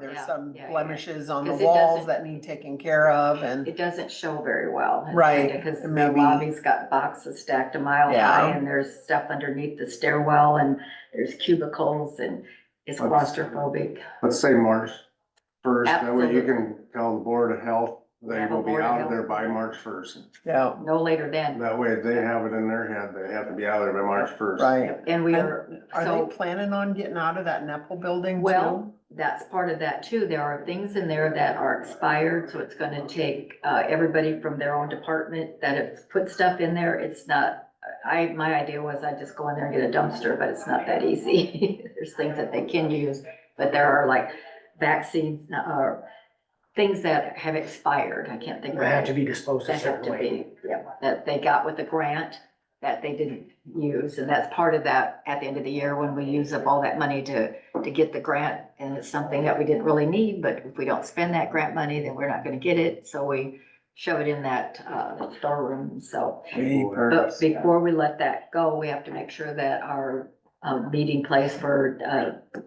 There's Yeah, some yeah, yeah. blemishes on the 'Cause it walls doesn't- that need taken care of and, It doesn't show very well. Right, Because the maybe- lobby's got boxes stacked a mile high Yeah. and there's stuff underneath the stairwell and there's cubicles and it's That's- claustrophobic. Let's say March first, that way you Absolutely. can tell the Board of Health, they Have a will be Board of out of there Health. by March first. yeah, No later than. That way they have it in their head, they have to be out of there by March first. right. And we are, Are so they planning on getting out of that Nepal building too? Well, that's part of that too. There are things in there that are expired, so it's gonna take, uh, everybody from their own department that have put stuff in there. It's not, I, my idea was I'd just go in there and get a dumpster, but it's not that easy. There's things that they can use, but there are like vaccines, uh, things that have expired. I can't think of. They have to it. be disposed a That have certain to way. be, yeah, that they got with the grant that they didn't use, and that's part of that at the end of the year when we use up all that money to, to get the grant, and it's something that we didn't really need, but if we don't spend that grant money, then we're not gonna get it, so we shove it in that, uh, storeroom, so. But before we let that go, we have to make sure that our, um, meeting place for, uh,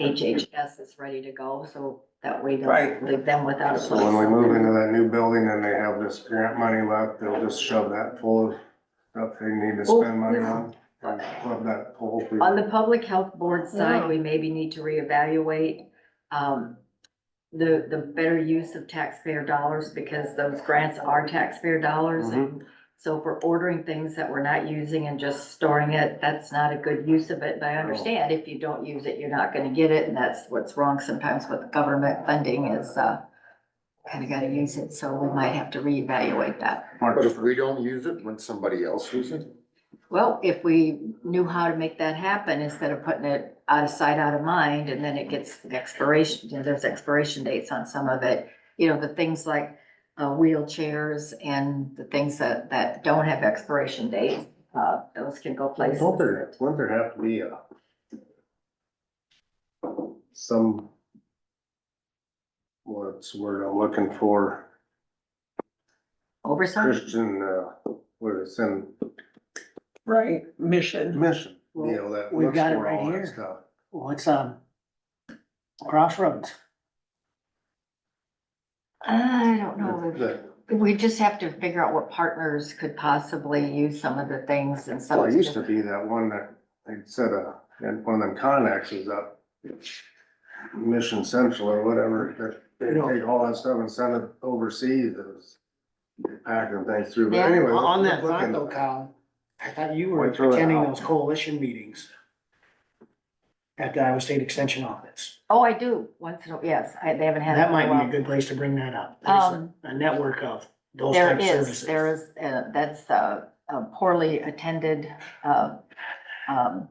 HHS is ready to go, so that we Right. don't leave them without a place. So when we move into that new building and they have this grant money left, they'll just shove that full of stuff they need to Well, spend money we- on. And plug that hole. through. Oh, On the public health board Yeah. side, we maybe need to reevaluate, um, the, the better use of taxpayer dollars because those grants are taxpayer dollars. and So if we're ordering things that we're not using and just storing it, that's not a good use of it. But I understand if you don't use it, you're not gonna get it. And that's what's wrong sometimes with government funding is, uh, kinda gotta use it. So we might have to reevaluate that. March But if 1st. we don't use it, when somebody else uses it? Well, if we knew how to make that happen, instead of putting it out of sight, out of mind, and then it gets expiration, you know, there's expiration dates on some of it. You know, the things like uh, wheelchairs and the things that, that don't have expiration dates, uh, those can go places. Don't there, wouldn't there have to be uh, a some what's the word I'm looking for? Oversight, Christian, uh, what is it, Right, mission. mission, you know, that We've looks got it for all right that here. stuff. What's, um, crossroads? I don't know. if- The- We just have to figure out what partners could possibly use some of the things and Well, some. it used to be that one that they set a, and one of them connexes up, Mission Central or whatever, that they You know. take all that stuff and send it overseas, it was packing things through, but Yeah. anyway. On on that look thought into though, it. Kyle, I thought you were Wait, throw it attending out. those coalition meetings at the Iowa State Extension Office. Oh, I do, once, in a yes, I, they haven't had. it That in a might while. be a good place to bring that up. There's a- Um, a network of those There type is, services. there is, uh, that's uh, a poorly attended, uh, um,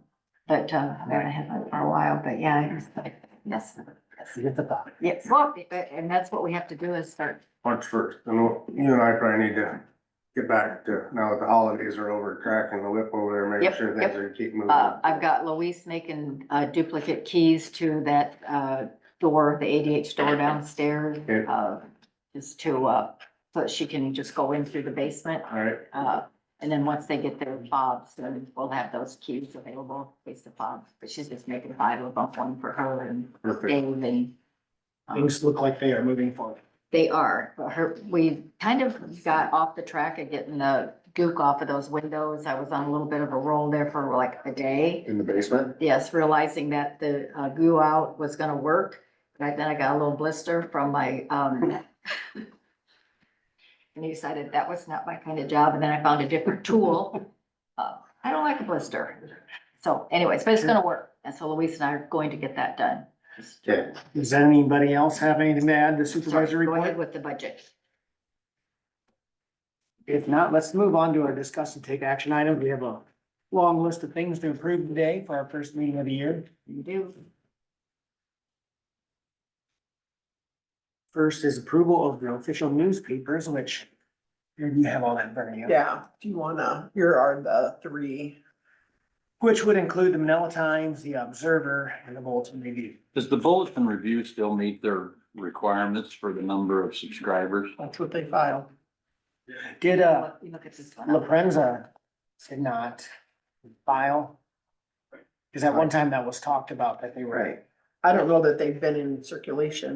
but uh, I haven't had one for a while, but yeah, I just like, yes, Forget the thought. yes, well, but- and that's what we have to do is start. March first, and we'll- you and I probably need to get back to, now that the holidays are over, cracking the whip over Yep, there, making sure yep. things are keep moving. Uh, I've got Luis making uh, duplicate keys to that uh, door, the ADH door downstairs. Okay. uh, Just to, uh, so that she can just go in through the basement. All right, Uh, and then once they get their fobs, then we'll have those keys available, in case the fobs, but she's just making five of them, one for her and perfect. Dave and. um, Things look like they are moving forward. They are, but her, we kind of got off the track of getting the gook off of those windows. I was on a little bit of a roll there for like a day. In the basement? Yes, realizing that the uh, goo out was gonna work, but then I got a little blister from my, um, and I decided that was not my kind of job, and then I found a different tool. Uh, I don't like a blister. So anyways, but it's gonna work, and so Luis and I are going to get that done. Okay, Does anybody else have anything to add to supervisor Go report? ahead with the budget. If not, let's move on to our discuss and take action items. We have a long list of things to approve today for our first meeting of the year. You do. First is approval of the official newspapers, which you have all that in front of you. Yeah, do you wanna, here are the three. Which would include the Manila Times, the Observer, and the Bulletin Review. Does the bulletin review still meet their requirements for the number of subscribers? That's what they filed. Did, uh, Look- You look at this one. La Prensa did not file? Cause at one time that was talked about that they were I don't know that they've been in circulation.